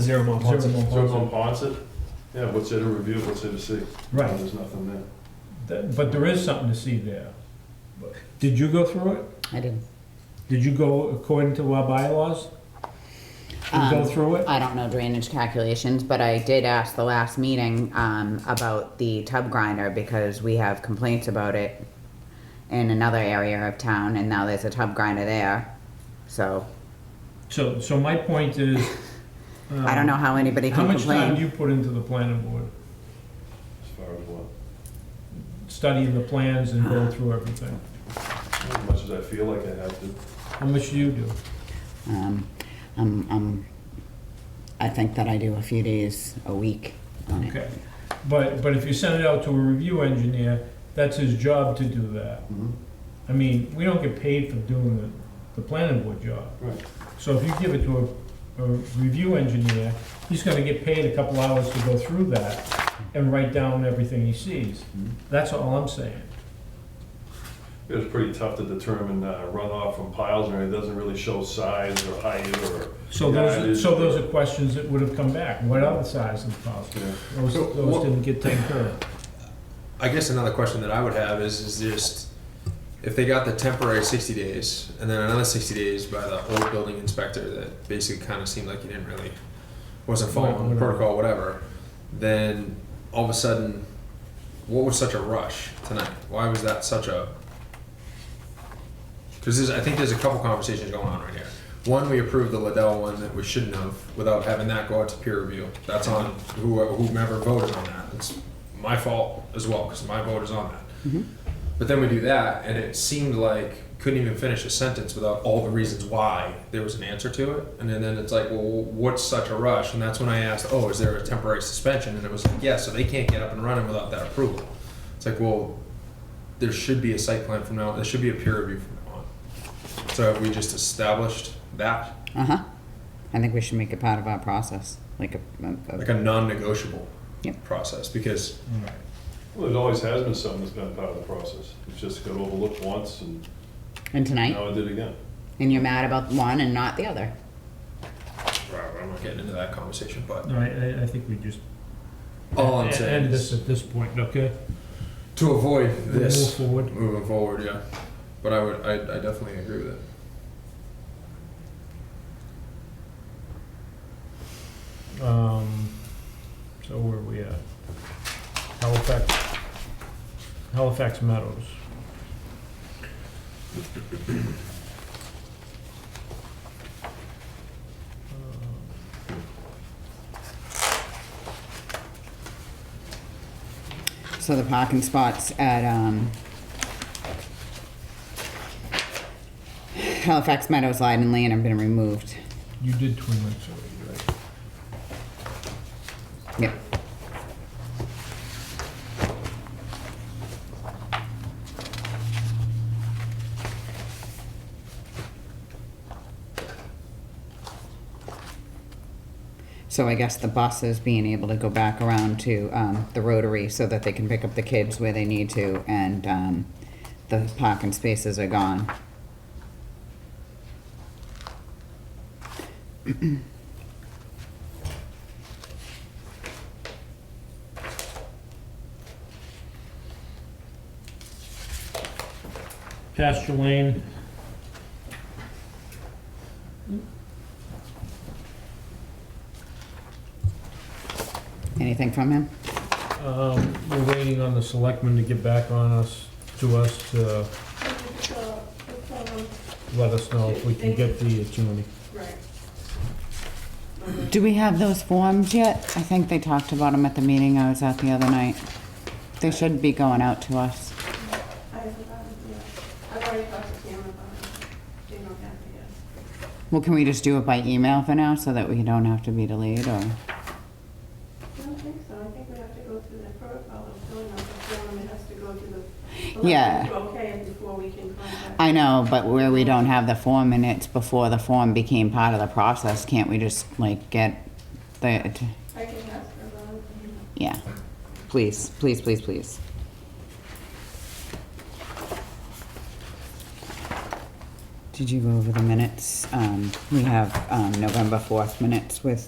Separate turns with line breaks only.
Zero Mont Ponce.
So on Ponset, yeah, what's there to review, what's there to see?
Right.
There's nothing there.
That- But there is something to see there. But- Did you go through it?
I didn't,
Did you go according to our bylaws? You go
Um,
through it?
I don't know drainage calculations, but I did ask the last meeting, um, about the tub grinder because we have complaints about it in another area of town and now there's a tub grinder there. So
So, so my point is. um,
I don't know how anybody
How
can
much time do
complain.
you put into the planning board,
As far as what,
studying the plans and going through everything?
as much as I feel like I have to.
How much do you do?
Um, I'm, I'm, I think that I do a few days a week on it.
Okay. But, but if you send it out to a review engineer, that's his job to do that.
Mhm.
I mean, we don't get paid for doing the, the planning board job.
Right.
So if you give it to a, a review engineer, he's gonna get paid a couple hours to go through that and write down everything he sees.
Hmm.
Mhm.
That's all I'm saying.
It was pretty tough to determine uh, runoff from piles, or it doesn't really show size or height or.
So those, so those are questions that would have come back. What are the size of the piles?
Yeah.
Those,
So
those
what-
didn't get taken care of.
I guess another question that I would have is, is just if they got the temporary 60 days and then another 60 days by the old building inspector that basically kind of seemed like he didn't really wasn't
Right,
following the
whatever.
protocol, whatever, then all of a sudden, what was such a rush tonight? Why was that such a? Because I think there's a couple conversations going on right here. One, we approved the Liddell one that we shouldn't have without having that go out to peer review. That's on whoever, whomever voted on that. It's my fault as well because my vote is on that. But then we do that, and it seemed like couldn't even finish a sentence without all the reasons why there was an answer to it. And then, then it's like, well, what's such a rush? And that's when I asked, oh, is there a temporary suspension? And it was like, yeah, so they can't get up and running without that approval. It's like, well, there should be a site plan from now. There should be a peer review from now on. So have we just established that
Uh-huh. I think we should make it part of our process, like a, a-
like a non-negotiable
Yep.
process because
Well, it always has been something that's been part of the process. It's just got overlooked once and
and tonight,
now I did again.
and you're mad about one and not the other.
Well, I'm not getting into that conversation. But
No, I, I, I think we just.
all I'm
end-
saying
End this
is
at this point, okay?
to avoid
Move
this
forward.
moving forward. Yeah, but I would I, I definitely agree with it.
Um, so where are we at? Halifax, Halifax Meadows. Uh,
So the parking spots at, um, Halifax Meadows, Lyden Lane have been removed.
You did Twin Lakes already, right?
Yep. So I guess the buses being able to go back around to, um, the Rotary so that they can pick up the kids where they need to and, um, the parking spaces are gone.
Pasture Lane.
Anything from him?
Um, we're waiting on the selectmen to get back on us, to us, to let us know if we can get the attorney.
Do we have those forms yet? I think they talked about them at the meeting I was at the other night. They should be going out to us.
I've already talked to Cam about it. They don't have to guess.
Well, can we just do it by email for now so that we don't have to be delayed or?
I don't think so. I think we have to go through the protocol of filling out the form. It has to go to the.
Yeah.
elections to Okay, it before we can contact.
I know, but where we don't have the form and it's before the form became part of the process, can't we just like get the,
I can ask her about it.
yeah. Please, please, please, please. Did you go over the minutes? Um, we have, um, November fourth minutes with